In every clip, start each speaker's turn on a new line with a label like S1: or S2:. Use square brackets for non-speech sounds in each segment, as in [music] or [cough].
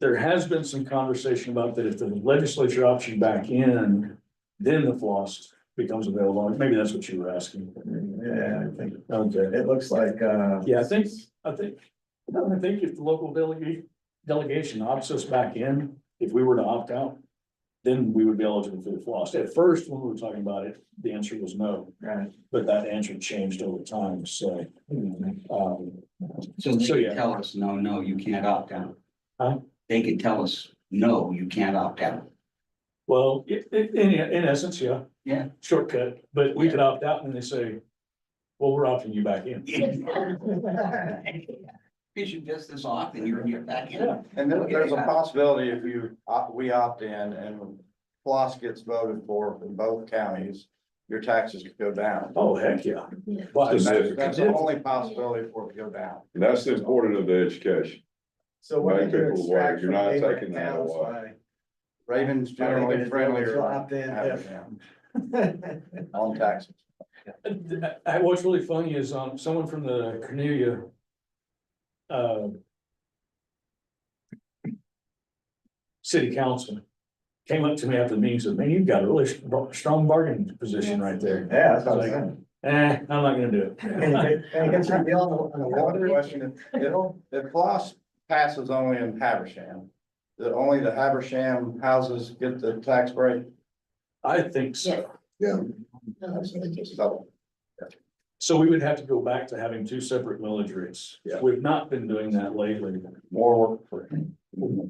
S1: there has been some conversation about that if the legislature opts you back in, then the floss becomes available. Maybe that's what you were asking.
S2: Yeah, I think,
S1: Okay.
S2: it looks like, uh.
S1: Yeah, I think, I think, I think if the local delegate, delegation opts us back in, if we were to opt out, then we would be eligible for the floss. At first, when we were talking about it, the answer was no,
S2: Right.
S1: but that answer changed over time, so, um,
S3: So they
S1: So, yeah.
S3: could tell us, no, no, you can't opt out.
S1: Huh?
S3: They could tell us, no, you can't opt out. [laughs]
S1: well, i- i- in, in essence, yeah.
S3: Yeah.
S1: Shortcut, but we could opt out and they say, well, we're opting you back in.
S3: Issue just this off and you're, you're back
S1: Yeah.
S3: in.
S4: And then there's a possibility if you, opt- we opt in and Floss gets voted for in both counties, your taxes could go down.
S1: Oh, heck, yeah.
S5: Yeah.
S1: Well, I-
S4: That's the only possibility for it to go down.
S6: And that's the importance of the education.
S2: So what
S6: Make
S2: did you
S6: people
S2: extract
S6: aware. You're
S2: from
S6: not
S2: neighboring
S6: taking that
S2: towns
S6: away.
S2: by-
S4: Ravens
S2: I
S4: generally
S2: think
S4: friendlier
S2: it's locked in,
S4: on-
S2: [laughs] yeah.
S4: on taxes.
S1: I, what's really funny is, um, someone from the Cornelia. Uh. City council came up to me after the meeting, and said, man, you've got a really str- strong bargaining position right there.
S2: Yeah, that's what I'm saying.
S1: Eh, I'm not gonna do
S2: And
S1: it.
S2: it- and it gets you beyond the- on the water.
S4: Another question, if, if Floss passes only in Haversham, that only the Haversham houses get the tax break?
S1: I think so.
S5: No, it's really just-
S4: So
S1: So we would have to go back to having two separate millage rates.
S6: Yeah.
S1: We've not been doing that lately.
S4: more work for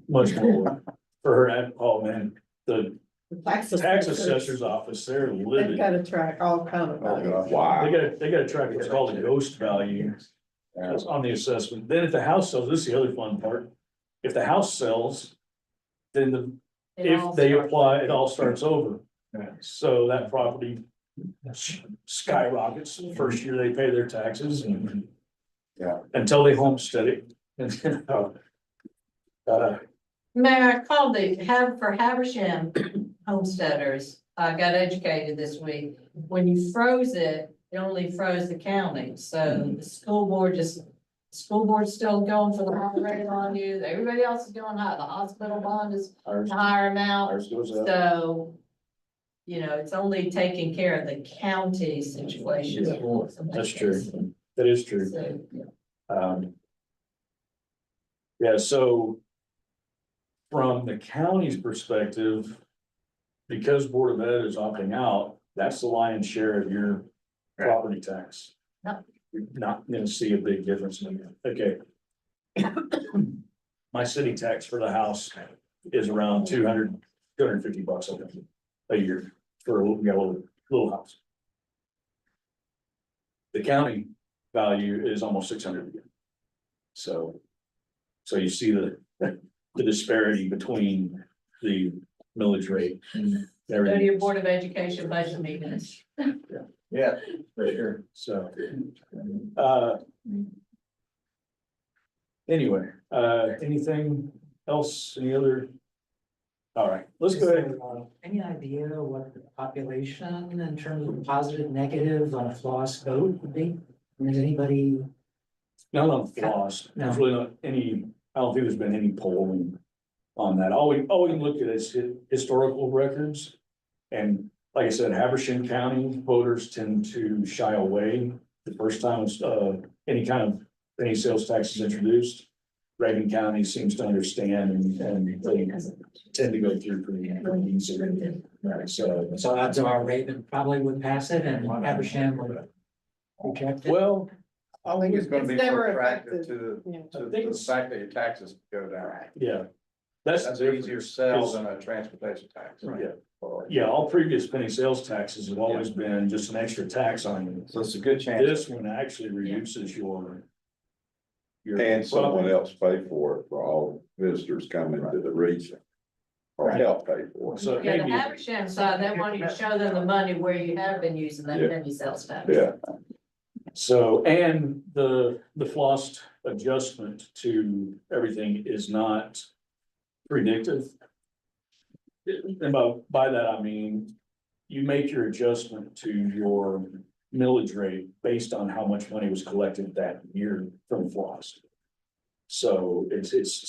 S1: Much more for her, and- oh man, the
S5: the Tax
S1: tax assessor's office, they're
S5: They've
S1: livid.
S5: got to track all kind of.
S4: Oh,
S5: values.
S4: gosh.
S1: They
S6: Wow.
S1: gotta, they gotta track what's called a ghost value that's on the assessment. Then if the house sells, this is the other fun part. If the house sells, then the,
S5: It all
S1: if they
S5: starts-
S1: apply, it all starts over.
S2: Yeah.
S1: So that property s- skyrockets the first year they pay their taxes and
S4: Yeah.
S1: until they homestead it. [laughs] And then, uh, uh,
S5: Mayor, I called the, have, for Haversham homesteaders, I got educated this week. When you froze it, it only froze the county, so the school board just, school board's still going for the high rate on you, everybody else is doing high, the hospital bond is
S1: ours-
S5: a higher amount,
S1: ours goes up.
S5: so. You know, it's only taking care of the county situation.
S1: That's true. That is true.
S5: So,
S1: Um. Yeah, so. From the county's perspective. Because Board of Ed is opting out, that's the lion's share of your
S2: Right.
S1: property tax.
S5: Yep.
S1: You're not gonna see a big difference in that, okay. My city tax for the house is around 200 250 bucks I think, a year for a little, yeah, little, little house. The county value is almost six hundred again. So. So you see the, the disparity between the millage rate and
S5: Go to your
S1: everything,
S5: Board of Education budget meetings.
S2: Yeah, for sure.
S1: so. uh, Anyway, uh, anything else, any other? All right, let's go ahead.
S7: Any idea what the population in terms of positive, negative on a floss vote would be? And Is anybody,
S1: Not on floss, there's really not any, I don't think there's been any polling on that. All we, all we can look at is hi- historical records. And like I said, Habersham County voters tend to shy away the first time, uh, any kind of penny sales tax is introduced. Reagan County seems to understand and, and they tend to go through pretty, pretty easily. Right, so.
S7: so odds are Raven probably would pass it and Abersham would reject it?
S1: Well,
S4: I think it's gonna be
S5: It's never
S4: more attractive to,
S5: Yeah.
S4: to
S1: I think
S4: the
S1: it's-
S4: fact that your taxes go down.
S1: yeah, that's.
S4: That's
S1: the
S4: an easier sell
S1: Is-
S4: than a transportation tax.
S1: difference. Yeah.
S4: Or-
S1: Yeah, all previous penny sales taxes have always been just an extra tax on you.
S4: So it's a good chance.
S1: This one actually reduces your. your
S6: And someone
S1: profit.
S6: else pay for it for all visitors coming to the region. Or help pay for it.
S1: So
S5: Yeah, the
S1: maybe,
S5: Habersham side, they want you to show them the money where you have been using that
S6: Yeah.
S5: penny sales tax.
S6: Yeah,
S1: so, and the, the floss adjustment to everything is not predictive. And by, by that I mean, you make your adjustment to your millage rate based on how much money was collected that year from floss. So it's, it's